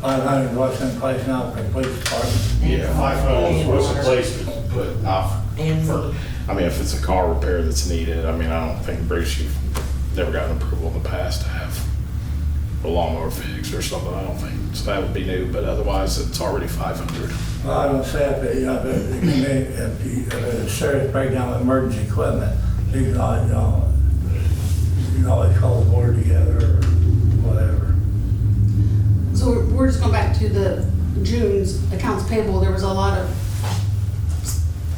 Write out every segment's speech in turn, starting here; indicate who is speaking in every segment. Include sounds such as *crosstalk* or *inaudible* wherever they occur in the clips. Speaker 1: Five hundred what's in place now for the police department.
Speaker 2: Yeah, five hundred was a place, but not
Speaker 3: And-
Speaker 2: for, I mean, if it's a car repair that's needed, I mean, I don't think, Bruce, you've never gotten approval in the past to have a lawnmower fixed or something, I don't think, so that would be new, but otherwise, it's already five hundred.
Speaker 1: Well, I don't say if it, you know, if it, if you may- if you, if it's a serious breakdown of emergency equipment, you can always, you know, you can always call the board together or whatever.
Speaker 4: So we're- we're just going back to the June's accounts payable, there was a lot of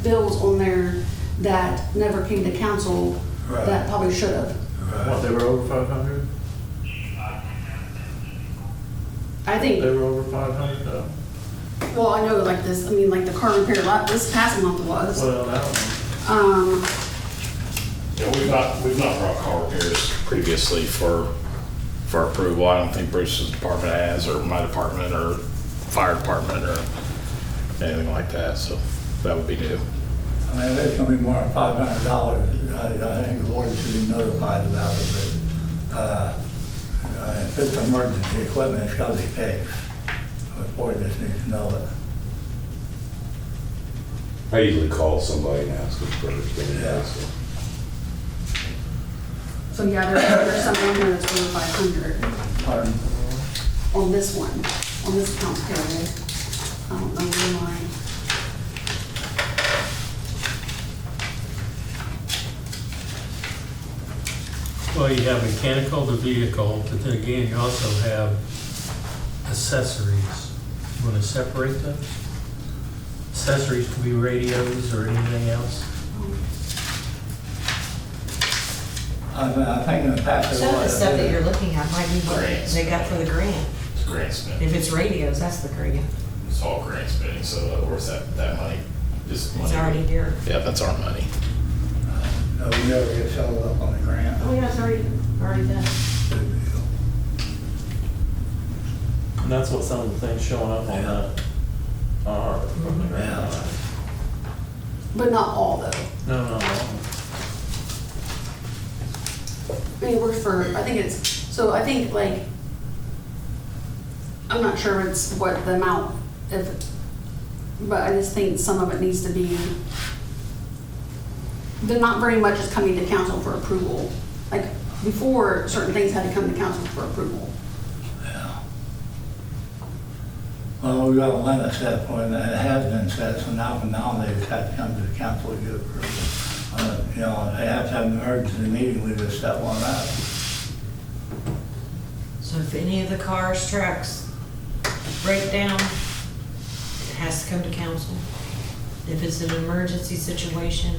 Speaker 4: bills on there that never came to council
Speaker 1: Right.
Speaker 4: that probably should have.
Speaker 5: What, they were over five hundred?
Speaker 4: I
Speaker 5: They
Speaker 4: think,
Speaker 5: were over five hundred though?
Speaker 4: well, I know like this, I mean, like the car repair, lot this past month was.
Speaker 5: Well, I don't know.
Speaker 4: Um,
Speaker 2: Yeah, we've not, we've not brought car repairs previously for, for approval, I don't think Bruce's department has, or my department, or fire department, or anything like that, so that would be new.
Speaker 1: I mean, there's gonna be more than five hundred dollars. I, I think the board should be notified about it, but, uh, uh, if it's emergency equipment, it's gotta be fixed. The board just needs to know it.
Speaker 6: I usually call somebody and ask them first, then I ask them.
Speaker 4: so yeah, there- there's some on here that's over five hundred
Speaker 1: Pardon?
Speaker 4: on this one, on this accounts payable. Um, I don't know why.
Speaker 7: Well, you have mechanical, the vehicle, but then again, you also have accessories. You want to separate those? Accessories could be radios or anything else.
Speaker 1: I, I think in the past.
Speaker 3: Some of the stuff that you're looking at might be what
Speaker 2: Grants.
Speaker 3: they got for the grant.
Speaker 2: It's grant spending.
Speaker 3: If it's radios, that's the grant.
Speaker 2: It's all grant spending, so of course that, that money is money.
Speaker 3: It's already here.
Speaker 2: Yeah, that's our money.
Speaker 1: No, Uh, we never get settled up on the grant.
Speaker 3: Oh, yeah, it's already, already done.
Speaker 5: And that's what some of the things showing up on that are.
Speaker 1: Yeah.
Speaker 4: But not all though.
Speaker 5: No, no, no.
Speaker 4: I mean, it works for, I think it's, so I think like, I'm not sure it's what the amount of, but I just think some of it needs to be, then not very much is coming to council for approval. Like before, certain things had to come to council for approval.
Speaker 1: Well, we got a limit set for it, and it has been set, so now from now, they've had to come to the council to get approval. Uh, You know, if they have to have an urgent meeting, we just set one up.
Speaker 3: So if any of the cars, trucks break down, it has to come to council. If it's an emergency situation,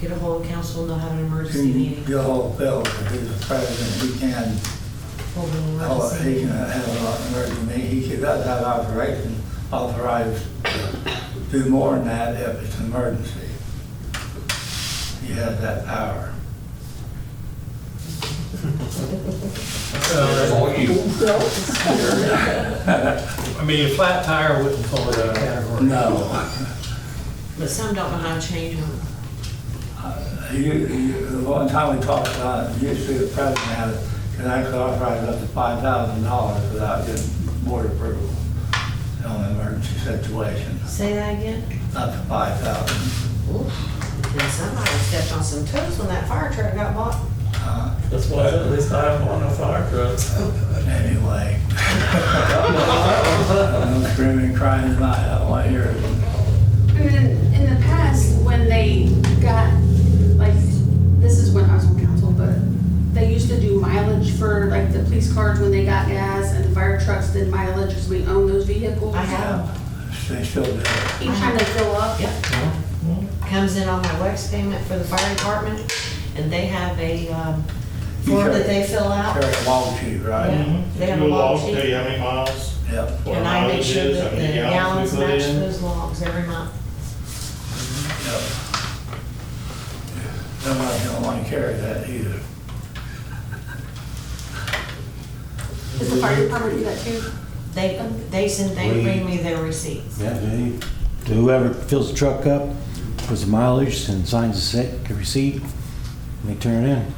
Speaker 3: get a hold of council, they'll have an emergency
Speaker 1: You
Speaker 3: meeting.
Speaker 1: can hold Bill, if he's the president, he can,
Speaker 3: Hold an
Speaker 1: call it- he
Speaker 3: emergency.
Speaker 1: can have an urgent meeting, he could, does have authorization, authorized to do more than that if it's an emergency. He has that power.
Speaker 7: Uh, I mean, a flat tire wouldn't fall into that category.
Speaker 1: No.
Speaker 3: But some don't know how to change them.
Speaker 1: You, you, the one time we talked about, it, usually the president had, can actually authorize up to five thousand dollars without getting board approval in an emergency situation,
Speaker 3: Say that again?
Speaker 1: up to five thousand.
Speaker 3: Ooh, Then somebody stepped on some toes when that fire truck got bought.
Speaker 5: That's why at least I have one of fire trucks.
Speaker 1: Anyway. *laughs* I'm screaming, and crying tonight, I don't want to hear it.
Speaker 4: And then in the past, when they got, like, this is when I was on council, but they used to do mileage for like the police cars when they got gas and the fire trucks did mileage because we own those vehicles.
Speaker 3: I have.
Speaker 1: They still do it.
Speaker 4: Each time they fill up.
Speaker 3: Yep. Comes in on my wax payment for the fire department, and they have a um,
Speaker 1: You
Speaker 3: form
Speaker 1: got-
Speaker 3: that they fill out.
Speaker 1: Carry a wall sheet, right?
Speaker 3: Yeah, They have a log sheet,
Speaker 2: how many miles?
Speaker 1: Yep.
Speaker 2: what
Speaker 3: and I make
Speaker 2: mileage
Speaker 3: sure
Speaker 2: is,
Speaker 3: that
Speaker 2: how
Speaker 3: the
Speaker 2: many we
Speaker 3: gallons
Speaker 2: put
Speaker 3: match
Speaker 2: in.
Speaker 3: those logs every month.
Speaker 1: Yep. Nobody's gonna want to carry that either.
Speaker 4: Does the fire department do that too?
Speaker 3: They, they send, they bring me their receipts.
Speaker 8: Yeah, they- whoever fills the truck up, puts the mileage and signs a sec- a receipt, and they turn it in.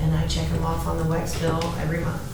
Speaker 3: And I check them off on the wax bill every month.